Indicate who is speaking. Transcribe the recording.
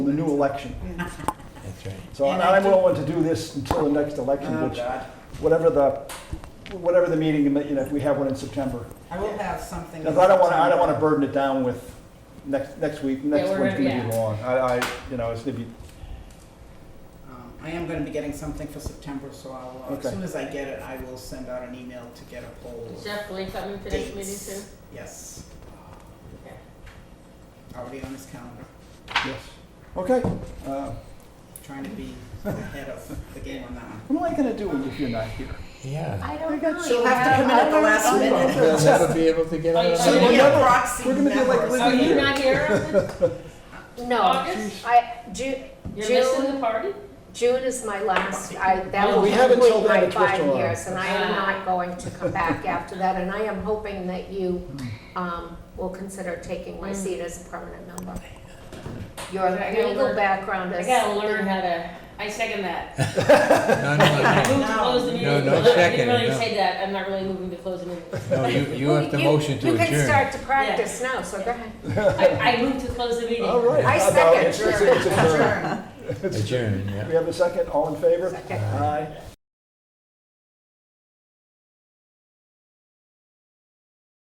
Speaker 1: the new election.
Speaker 2: That's right.
Speaker 1: So and I'm willing to do this until the next election,
Speaker 3: Oh,
Speaker 1: which,
Speaker 3: God.
Speaker 1: whatever the, whatever the meeting, you know, if we have one in September.
Speaker 3: I will have something.
Speaker 1: Because I don't want to, I don't want to burden it down with next, next week, next
Speaker 4: we're
Speaker 1: one's
Speaker 4: gonna-
Speaker 1: going to be
Speaker 4: yeah.
Speaker 1: long. I, I, you know, it's going to be,
Speaker 3: Um, I am gonna be getting something for September, so I'll, uh, as
Speaker 1: Okay.
Speaker 3: soon as I get it, I will send out an email to get a poll.
Speaker 4: Is
Speaker 3: of
Speaker 4: Jeff Blake coming for this meeting
Speaker 3: dates.
Speaker 4: too?
Speaker 3: Yes,
Speaker 4: Okay.
Speaker 3: already on his calendar,
Speaker 1: yes. Okay. Uh,
Speaker 3: trying to be ahead of the game on that one.
Speaker 1: What am I going to do if you're not here?
Speaker 2: Yeah.
Speaker 4: I don't
Speaker 1: got
Speaker 4: know.
Speaker 3: She'll
Speaker 4: You
Speaker 3: have to come in at the
Speaker 4: other-
Speaker 3: last
Speaker 4: other-
Speaker 3: minute.
Speaker 2: They'll never be able to get out of
Speaker 4: So
Speaker 2: the
Speaker 1: we're
Speaker 3: Be
Speaker 2: meeting.
Speaker 3: a
Speaker 1: never-
Speaker 3: proxy
Speaker 1: we're gonna be like
Speaker 3: member.
Speaker 1: living-
Speaker 4: Are you not here? Oh, on
Speaker 5: No,
Speaker 4: August?
Speaker 5: I, Ju-
Speaker 4: You're missing
Speaker 5: June,
Speaker 4: the party?
Speaker 5: June is my last, I, that
Speaker 4: Oh,
Speaker 5: will
Speaker 4: we
Speaker 1: have
Speaker 5: complete
Speaker 1: until then
Speaker 5: my
Speaker 1: to twist
Speaker 5: five
Speaker 1: your arm.
Speaker 5: years, and I am
Speaker 4: Ah.
Speaker 5: not going to come back after that, and I am hoping that you,
Speaker 4: Hmm.
Speaker 5: um, will consider taking my
Speaker 4: Mm.
Speaker 5: seat as a permanent member. Your
Speaker 4: I gotta
Speaker 5: legal
Speaker 4: learn-
Speaker 5: background
Speaker 4: I
Speaker 5: is.
Speaker 4: gotta learn how to, I second that.
Speaker 2: No, no,
Speaker 4: Move to
Speaker 3: No.
Speaker 4: close the meeting.
Speaker 2: No, no
Speaker 4: Well, I
Speaker 2: second,
Speaker 4: didn't really
Speaker 2: no.
Speaker 4: say that, I'm not really moving to close the meeting.
Speaker 2: no. No, you, you have to motion to
Speaker 5: You can
Speaker 2: adjourn.
Speaker 5: start to practice now, so go ahead.
Speaker 4: I, I moved to close the meeting.
Speaker 1: All right.
Speaker 5: I
Speaker 1: How about
Speaker 5: second.
Speaker 1: it's- it's- it's adjourned.
Speaker 3: Adjourn.
Speaker 2: Adjourn, yeah.
Speaker 1: We have a second, all in favor?
Speaker 5: Second.
Speaker 1: Aye.